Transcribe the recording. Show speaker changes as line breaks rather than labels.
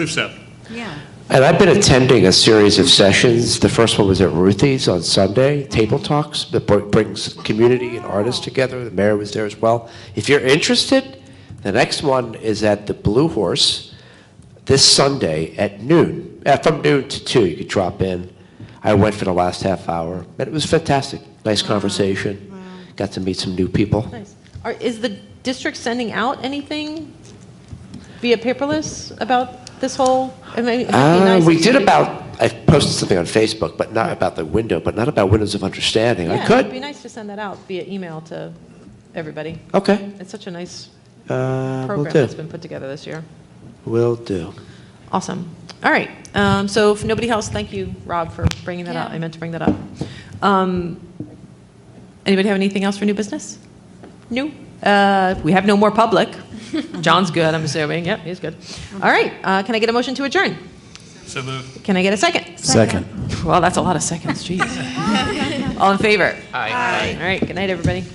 Accept.
Yeah.
And I've been attending a series of sessions. The first one was at Ruthie's on Sunday, Table Talks, that br- brings community and artists together. The mayor was there as well. If you're interested, the next one is at the Blue Horse this Sunday at noon, uh, from noon to 2. You could drop in. I went for the last half hour, and it was fantastic. Nice conversation. Got to meet some new people.
Nice. Are, is the district sending out anything via paperless about this whole? I mean, it'd be
Uh,
nice
we
if
did
could-
about, I posted something on Facebook, but not about the window, but not about windows of understanding. I
Yeah, it'd be
could.
nice to send that out via email to everybody.
Okay.
It's such a nice
Uh, will
program
do.
that's been put together this year.
Will do.
Awesome. All right. Um, so if nobody else, thank you, Rob, for bringing that up.
Yeah.
I meant to bring that up. Um, anybody have anything else for new business? No. Uh, we have no more public. John's good, I'm assuming. Yep, he's good. All right. Uh, can I get a motion to adjourn?
So moved.
Can I get a second?
Second.
Well, that's a lot of seconds. Jeez. All in favor? Aye. All right. Good night, everybody.